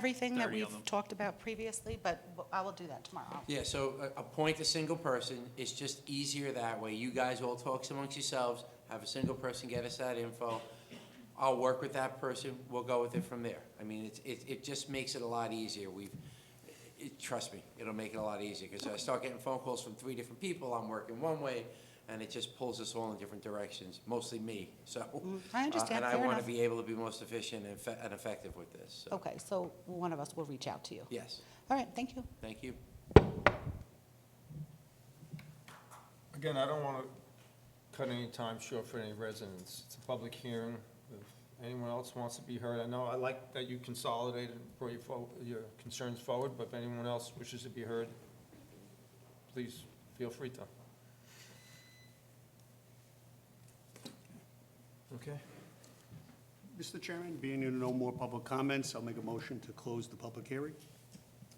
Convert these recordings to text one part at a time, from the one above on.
everything that 30 of we've them. talked about previously, but w- I will do that tomorrow. Yeah, so a- appoint a single person, it's just easier that way. You guys all talk amongst yourselves, have a single person get us that info. I'll work with that person, we'll go with it from there. I mean, it's, it, it just makes it a lot easier. We've, it, trust me, it'll make it a lot easier, because I start getting phone calls from three different people, I'm working one way, and it just pulls us all in different directions, mostly me, so. Mm, I uh, understand, fair And I want enough. to be able to be most efficient and effe- and effective with this, so, Okay, so one of us will reach out to you. yes, All right, thank you. thank you. Again, I don't want to cut any time short for any residents. It's a public hearing. If anyone else wants to be heard, I know, I like that you consolidated and brought your, fo- your concerns forward, but if anyone else wishes to be heard, please feel free to. Okay. Mr. Chairman, being there are no more public comments, I'll make a motion to close the public hearing.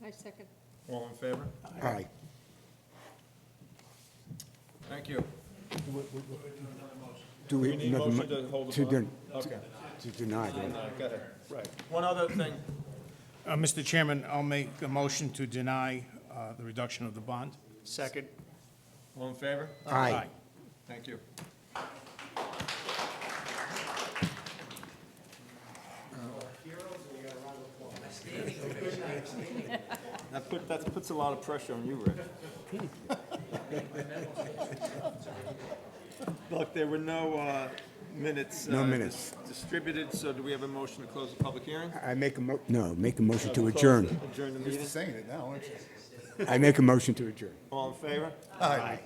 I second. All in favor? Aye. Thank you. Do We need a nothing mu- motion to hold the to vote? den- Okay. To deny, right? Go ahead. Right. One other thing. Uh, Mr. Chairman, I'll make a motion to deny uh, the reduction of the bond. Second. All in favor? Aye. Thank you. That put, that puts a lot of pressure on you, Rick. Look, there were no uh, minutes. No uh, minutes. dis- Distributed, so do we have a motion to close the public hearing? I make a mo, no, make a motion to Close the- adjourn. Adjourn the meeting. I make a motion to adjourn. All in favor? Aye.